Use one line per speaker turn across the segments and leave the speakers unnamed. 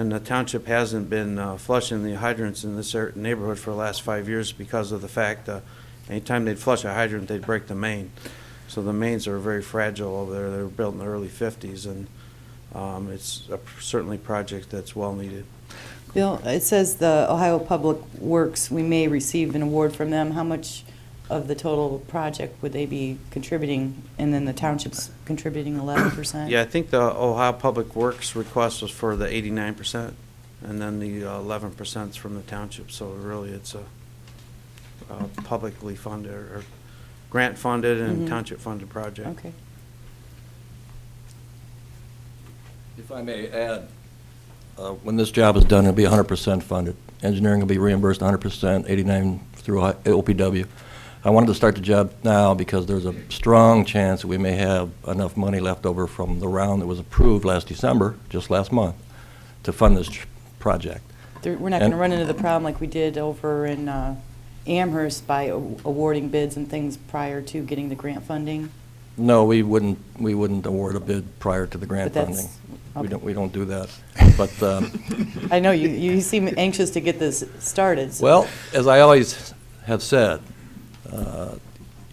And the township hasn't been uh, flushing the hydrants in this cer- neighborhood for the last five years because of the fact, uh, anytime they'd flush a hydrant, they'd break the main. So the mains are very fragile over there. They were built in the early 50s, and um, it's a- certainly a project that's well needed.
Bill, it says the Ohio Public Works, we may receive an award from them. How much of the total project would they be contributing? And then the township's contributing 11%?
Yeah, I think the Ohio Public Works request was for the 89%, and then the uh, 11% is from the township. So really, it's a uh, publicly funded or grant-funded and
Mhm.
township-funded project.
Okay.
If I may add, uh, when this job is done, it'll be 100% funded. Engineering will be reimbursed 100%, 89 through I- OPW. I wanted to start the job now because there's a strong chance that we may have enough money left over from the round that was approved last December, just last month, to fund this tr- project.
There- We're not going to
And-
run into the problem like we did over in uh, Amherst by a- awarding bids and things prior to getting the grant funding?
No, we wouldn't, we wouldn't award a bid prior to the
But
grant
that's-
funding. We
okay.
don't, we don't do that. But um,
I know, you you seem anxious to get this started. so-
Well, as I always have said, uh,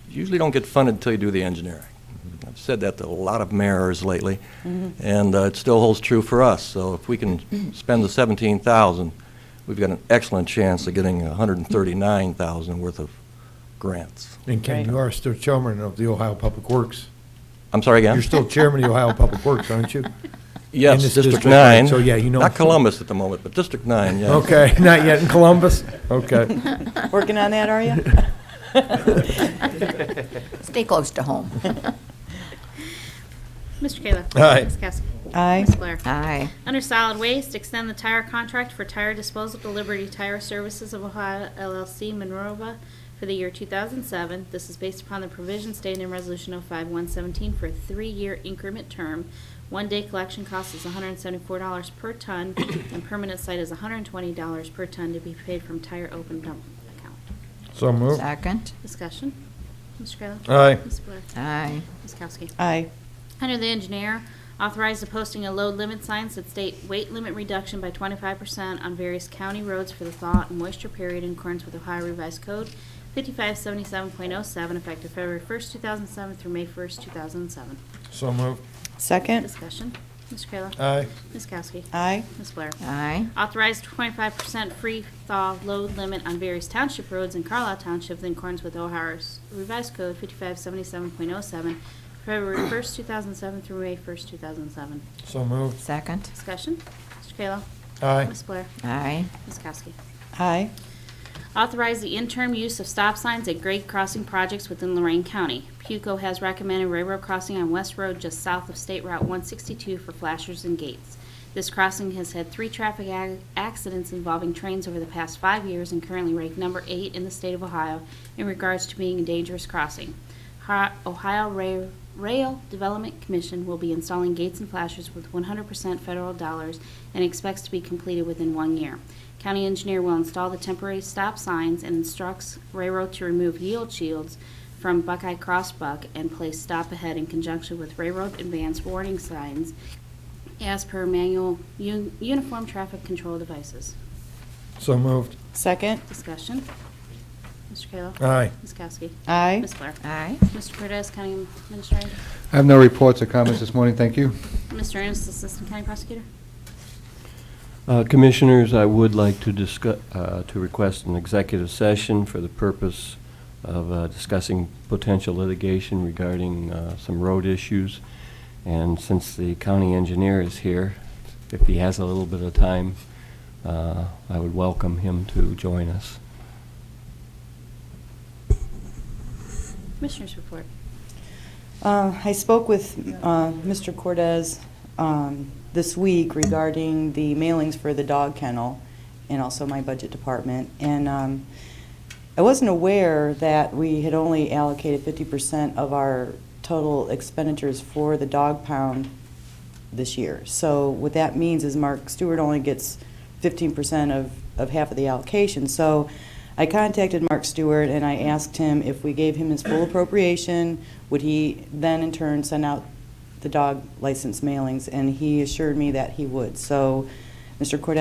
you usually don't get funded until you do the engineering. I've said that to a lot of mayors lately,
Mm-hmm.
and uh, it still holds true for us. So if we can spend the 17,000, we've got an excellent chance of getting 139,000 worth of grants.
And Ken,
Right.
you are still chairman of the Ohio Public Works.
I'm sorry again?
You're still chairman of the Ohio Public Works, aren't you? in
Yes,
this
District
district, right?
9.
So, yeah, you know-
Not Columbus at the moment, but District 9, yes.
Okay, not yet in Columbus? Okay.
Working on that, are you?
Stay close to home.
Mm-hmm.
Mr. Kayla.
Aye.
Ms. Kowski.
Aye.
Ms. Blair.
Aye.
Under solid waste, extend the tire contract for tire disposal to Liberty Tire Services of Ohio LLC Monrovia for the year 2007. This is based upon the provision stated in Resolution 05117 for a three-year increment term. One-day collection cost is $174 per ton, and permanent site is $120 per ton to be paid from tire open dump account.
So moved.
Second.
Discussion. Mr. Kayla.
Aye.
Ms. Blair.
Aye.
Ms. Kowski.
Aye.
Under the engineer, authorize the posting of load limit signs that state weight limit reduction by twenty-five percent on various county roads for the thaw and moisture period in accordance with Ohio Revised Code fifty-five seventy-seven point oh seven, effective February first, two thousand seven through May first, two thousand seven.
So moved.
Second?
Discussion. Mr. Kayla.
Aye.
Ms. Kowski.
Aye.
Ms. Blair.
Aye.
Authorized twenty-five percent free thaw load limit on various township roads in Carlisle Township in accordance with Ohio's revised code fifty-five seventy-seven point oh seven, February first, two thousand seven through May first, two thousand seven.
So moved.
Second.
Discussion. Mr. Kayla.
Aye.
Ms. Blair.
Aye.
Ms. Kowski.
Aye.
Authorize the interim use of stop signs at grade crossing projects within Lorraine County. PUCO has recommended railroad crossing on West Road just south of State Route 162 for flashers and gates. This crossing has had three traffic ac- accidents involving trains over the past five years and currently ranked number eight in the state of Ohio in regards to being a dangerous crossing. Hi- Ohio Ra- Rail Development Commission will be installing gates and flashers with 100% federal dollars and expects to be completed within one year. County engineer will install the temporary stop signs and instructs railroad to remove yield shields from Buckeye Crossbuck and place stop ahead in conjunction with railroad advance warning signs as per manual un- uniform traffic control devices.
So moved.
Second?
Discussion. Mr. Kayla.
Aye.
Ms. Kowski.
Aye.
Ms. Blair.
Aye.
Mr. Cortez, County Administrator.
I have no reports or comments this morning, thank you.
Mr. Ennis, Assistant County Prosecutor.
Uh, Commissioners, I would like to discuss, to request an executive session for the purpose of uh, discussing potential litigation regarding uh, some road issues. And since the county engineer is here, if he has a little bit of time, uh, I would welcome him to join us.
Commissioners report.
Uh, I spoke with uh, Mr. Cortez um, this week regarding the mailings for the dog kennel and also my budget department. And um, I wasn't aware that we had only allocated 50% of our total expenditures for the dog pound this year. So what that means is Mark Stewart only gets 15% of, of half of the allocation. So I contacted Mark Stewart and I asked him if we gave him his full appropriation, would he then in turn send out the dog license mailings? And he assured me that he would. So Mr. Cordez